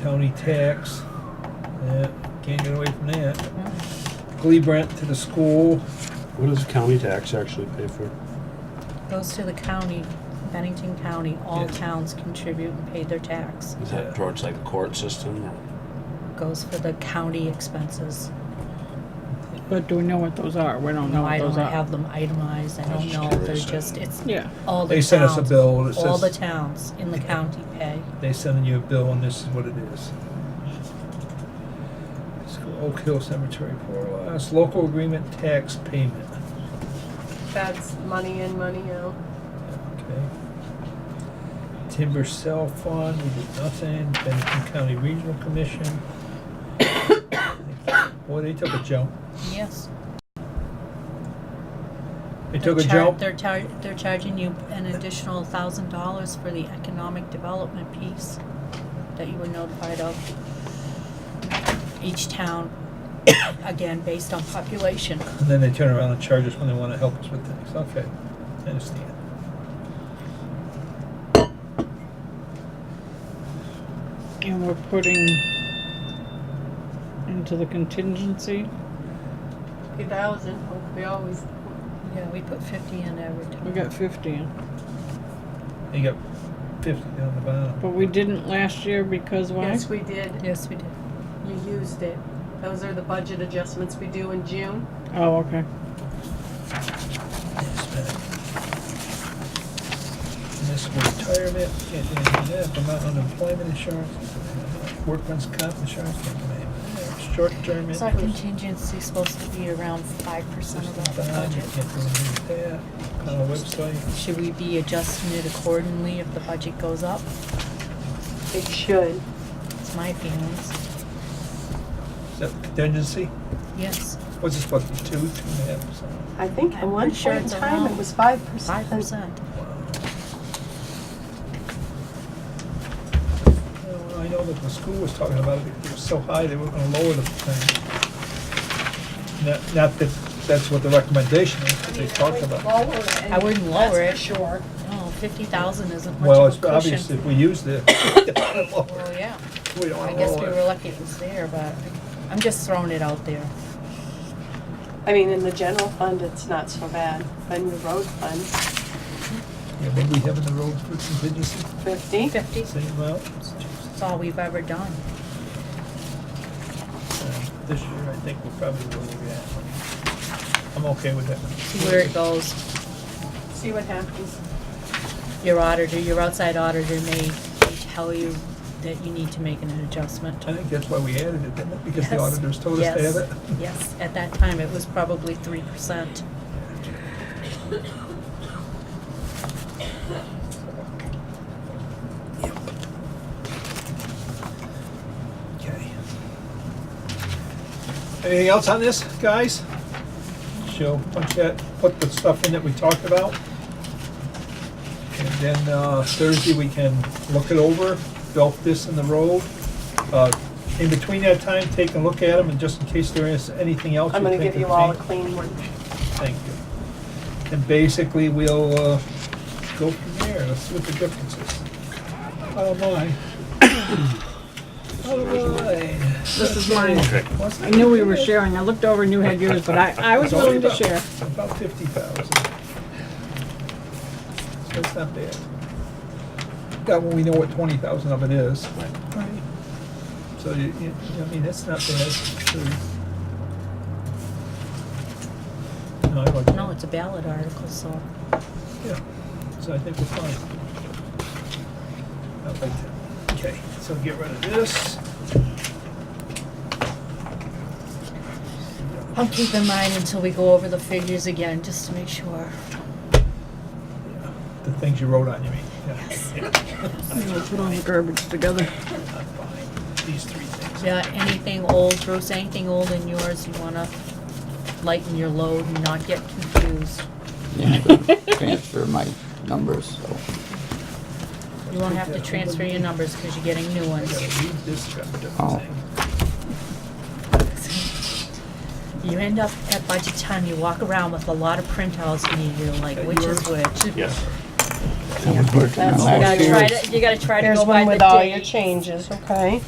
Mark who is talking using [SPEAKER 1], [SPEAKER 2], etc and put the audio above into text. [SPEAKER 1] county tax. Yeah, can't get away from that. Glebe rent to the school,
[SPEAKER 2] What does county tax actually pay for?
[SPEAKER 3] Goes to the county, Bennington County, all
[SPEAKER 1] Yes.
[SPEAKER 3] towns contribute and pay their tax.
[SPEAKER 2] Is that towards like the court system or?
[SPEAKER 3] Goes for the county expenses.
[SPEAKER 4] But do we know what those are? We don't know
[SPEAKER 3] No, I don't
[SPEAKER 4] what those are.
[SPEAKER 3] have them itemized, I
[SPEAKER 2] I was
[SPEAKER 3] don't
[SPEAKER 2] just
[SPEAKER 3] know, they're
[SPEAKER 2] curious.
[SPEAKER 3] just, it's
[SPEAKER 4] Yeah,
[SPEAKER 3] all the towns.
[SPEAKER 1] They sent us a bill that
[SPEAKER 3] All the
[SPEAKER 1] says-
[SPEAKER 3] towns in the county pay.
[SPEAKER 1] they sending you a bill and this is what it is. School Oak Hill Cemetery for last, local agreement tax payment.
[SPEAKER 5] That's money in, money out.
[SPEAKER 1] Okay. Timber cell fund, we did nothing, Bennington County Regional Commission. Boy, they took a jump,
[SPEAKER 3] Yes.
[SPEAKER 1] they took a
[SPEAKER 3] They're char-
[SPEAKER 1] jump.
[SPEAKER 3] They're char- they're charging you an additional thousand dollars for the economic development piece that you were notified of. Each town, again, based on population.
[SPEAKER 1] And then they turn around and charge us when they want to help us with things. Okay, I understand.
[SPEAKER 4] and we're putting into the contingency.
[SPEAKER 5] Fifty thousand, we always,
[SPEAKER 3] Yeah, we put fifty in every time.
[SPEAKER 4] We got fifty,
[SPEAKER 1] You got fifty down the bottom.
[SPEAKER 4] but we didn't last year because why?
[SPEAKER 5] yes, we did.
[SPEAKER 3] Yes, we did.
[SPEAKER 5] You used it. Those are the budget adjustments we do in June.
[SPEAKER 4] Oh, okay.
[SPEAKER 1] Yes, ma'am. Municipal retirement, can't do anything with that. Vermont unemployment insurance, workman's comp insurance, can't do anything with that. Short-term
[SPEAKER 3] So our
[SPEAKER 1] interest.
[SPEAKER 3] contingency's supposed to be around five percent of the
[SPEAKER 1] Bond, you
[SPEAKER 3] budget.
[SPEAKER 1] can't do anything with that. Kind of website.
[SPEAKER 3] Should we be adjusting it accordingly if the budget goes up?
[SPEAKER 5] It should.
[SPEAKER 3] It's my feelings.
[SPEAKER 1] Is that contingency?
[SPEAKER 3] Yes,
[SPEAKER 1] What's this supposed to be, two, two and a half percent?
[SPEAKER 5] I think at
[SPEAKER 3] I'm
[SPEAKER 5] one
[SPEAKER 3] pretty sure
[SPEAKER 5] point in
[SPEAKER 3] it's
[SPEAKER 5] time, it
[SPEAKER 3] around
[SPEAKER 5] was five
[SPEAKER 3] five
[SPEAKER 5] percent.
[SPEAKER 3] percent.
[SPEAKER 1] Yeah, well, I know that the school was talking about it, it was so high, they were gonna lower the thing. Not, not that, that's what the recommendation is, but they talked about.
[SPEAKER 3] I wouldn't lower it.
[SPEAKER 5] Sure.
[SPEAKER 3] No, fifty thousand isn't much
[SPEAKER 1] Well, it's
[SPEAKER 3] of a
[SPEAKER 1] obvious
[SPEAKER 3] cushion.
[SPEAKER 1] if we use the,
[SPEAKER 3] Well, yeah,
[SPEAKER 1] we don't
[SPEAKER 3] I
[SPEAKER 1] wanna
[SPEAKER 3] guess we were
[SPEAKER 1] lower it.
[SPEAKER 3] lucky it was there, but I'm just throwing it out there.
[SPEAKER 5] I mean, in the general fund, it's not so bad, but in the road fund,
[SPEAKER 1] Yeah, maybe we have in the road for contingency,
[SPEAKER 5] fifty.
[SPEAKER 3] Fifty,
[SPEAKER 1] same amount.
[SPEAKER 3] that's all we've ever done.
[SPEAKER 1] Uh, This year, I think we'll probably lower that. I'm okay with that.
[SPEAKER 3] See where it goes.
[SPEAKER 5] See what happens.
[SPEAKER 3] Your auditor, your outside auditor may may tell you that you need to make an adjustment.
[SPEAKER 1] I think that's why we added it, didn't it? Because the
[SPEAKER 3] Yes,
[SPEAKER 1] auditors told us to
[SPEAKER 3] yes,
[SPEAKER 1] add it.
[SPEAKER 3] Yes, at that time, it was probably three percent.
[SPEAKER 1] Okay. Anything else on this, guys? She'll punch that, put the stuff in that we talked about. And then uh, Thursday, we can look it over, belt this in the road. Uh, In between that time, take a look at them, and just in case there is anything else.
[SPEAKER 5] I'm gonna
[SPEAKER 1] think
[SPEAKER 5] give you
[SPEAKER 1] would
[SPEAKER 5] all a
[SPEAKER 1] change.
[SPEAKER 5] clean one.
[SPEAKER 1] Thank you. And basically, we'll uh, go from there, let's see what the difference is. Oh, my. All right.
[SPEAKER 4] This is mine.
[SPEAKER 1] What's
[SPEAKER 4] I
[SPEAKER 1] the
[SPEAKER 4] knew we were
[SPEAKER 1] difference?
[SPEAKER 4] sharing. I looked over and knew had yours, but I, I was willing to share.
[SPEAKER 1] About fifty thousand. So it's not bad. That one, we know what twenty thousand of it is. Right. So you, you, I mean, that's not bad. So- No, I like
[SPEAKER 3] No, it's a ballot article, so
[SPEAKER 1] yeah, so I think we're fine. I like that. Okay, so get rid of this.
[SPEAKER 3] I'll keep in mind until we go over the figures again, just to make sure.
[SPEAKER 1] Yeah, The things you wrote on, you mean? Yeah,
[SPEAKER 4] I'm gonna put all the garbage together.
[SPEAKER 1] not fine. These three things.
[SPEAKER 3] Yeah, anything old, Bruce, anything old in yours, you wanna lighten your load and not get confused.
[SPEAKER 6] transfer my numbers, so.
[SPEAKER 3] You won't have to transfer your numbers because you're getting new
[SPEAKER 1] I
[SPEAKER 3] ones.
[SPEAKER 1] gotta read this crap,
[SPEAKER 6] Oh.
[SPEAKER 1] different thing.
[SPEAKER 3] You end up at budget time, you walk around with a lot of printouts and you're like, which is which?
[SPEAKER 2] Yes.
[SPEAKER 6] I was working on
[SPEAKER 5] That's
[SPEAKER 3] You
[SPEAKER 6] last
[SPEAKER 3] gotta
[SPEAKER 6] year.
[SPEAKER 3] try to, you gotta try to go by the
[SPEAKER 5] with all your
[SPEAKER 3] dates.
[SPEAKER 5] changes, okay?